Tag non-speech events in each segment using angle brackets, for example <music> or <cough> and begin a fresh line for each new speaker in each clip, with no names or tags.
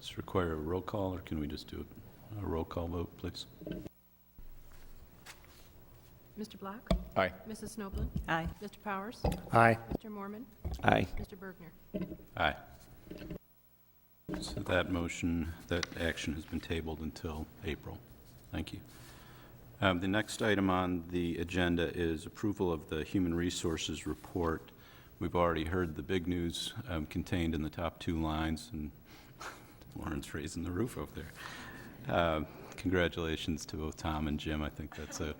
Does it require a roll call, or can we just do it- a roll call vote, please?
Mr. Black?
Aye.
Mrs. Snoblin?
Aye.
Mr. Powers?
Aye.
Mr. Mormon?
Aye.
Mr. Bergner?
Aye. So that motion, that action has been tabled until April. Thank you. Um, The next item on the agenda is approval of the Human Resources Report. We've already heard the big news um, contained in the top two lines, and <laughs> Lauren's raising the roof over there. Uh, Congratulations to both Tom and Jim. I think that's a,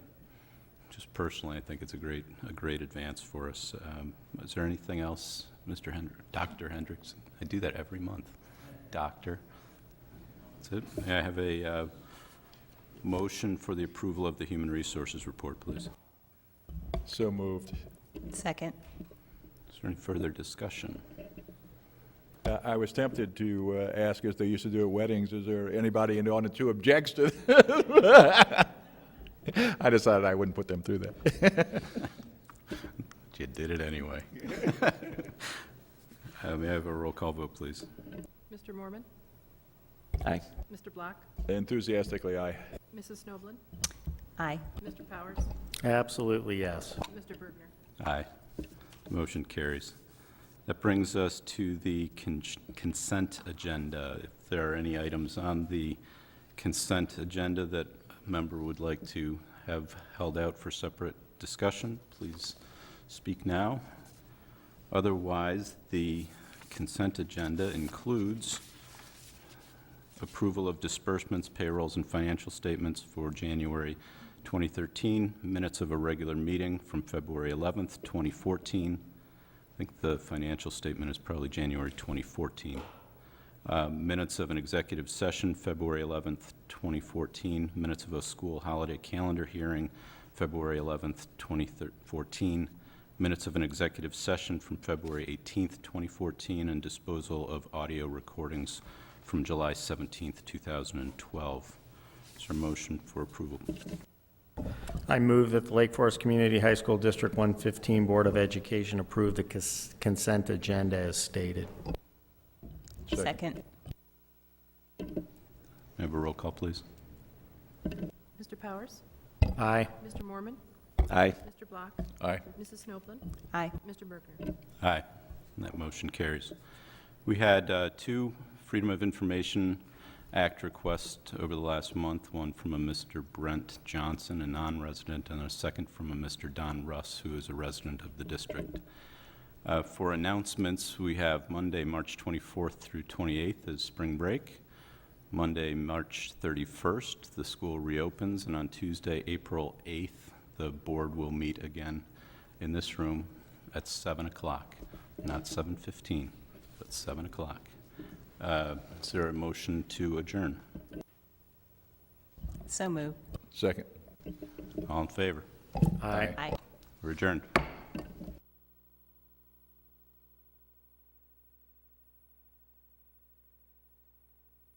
just personally, I think it's a great, a great advance for us. Um, Is there anything else, Mr. Hendr, Dr. Hendrickson? I do that every month. Doctor. That's it. May I have a uh, motion for the approval of the Human Resources Report, please?
So moved.
Second.
Is there any further discussion?
Uh, I was tempted to uh, ask, as they used to do at weddings, is there anybody in the audience who objects to? <laughs> I decided I wouldn't put them through that.
You did it anyway. <laughs> Uh, May I have a roll call vote, please?
Mr. Mormon?
Aye.
Mr. Black?
Enthusiastically, aye.
Mrs. Snoblin?
Aye.
Mr. Powers?
Absolutely, yes.
Mr. Bergner?
Aye. The motion carries. That brings us to the con- consent agenda. If there are any items on the consent agenda that a member would like to have held out for separate discussion, please speak now. Otherwise, the consent agenda includes approval of disbursements, payrolls, and financial statements for January 2013, minutes of a regular meeting from February 11th, 2014. I think the financial statement is probably January 2014. Uh, Minutes of an executive session, February 11th, 2014. Minutes of a school holiday calendar hearing, February 11th, 2014. Minutes of an executive session from February 18th, 2014, and disposal of audio recordings from July 17th, 2012. Is there a motion for approval?
I move that the Lake Forest Community High School District 115 Board of Education approve the cons- consent agenda as stated.
Second.
Second.
May I have a roll call, please?
Mr. Powers?
Aye.
Mr. Mormon?
Aye.
Mr. Black?
Aye.
Mrs. Snoblin?
Aye.
Mr. Bergner?
Aye. And That motion carries. We had uh, two Freedom of Information Act requests over the last month, one from a Mr. Brent Johnson, a non-resident, and a second from a Mr. Don Russ, who is a resident of the district. Uh, For announcements, we have Monday, March 24th through 28th is spring break. Monday, March 31st, the school reopens, and on Tuesday, April 8th, the board will meet again in this room at 7 o'clock, not 7:15, but 7 o'clock. Uh, Is there a motion to adjourn?
So moved.
Second.
All in favor?
Aye.
Aye.
We're adjourned.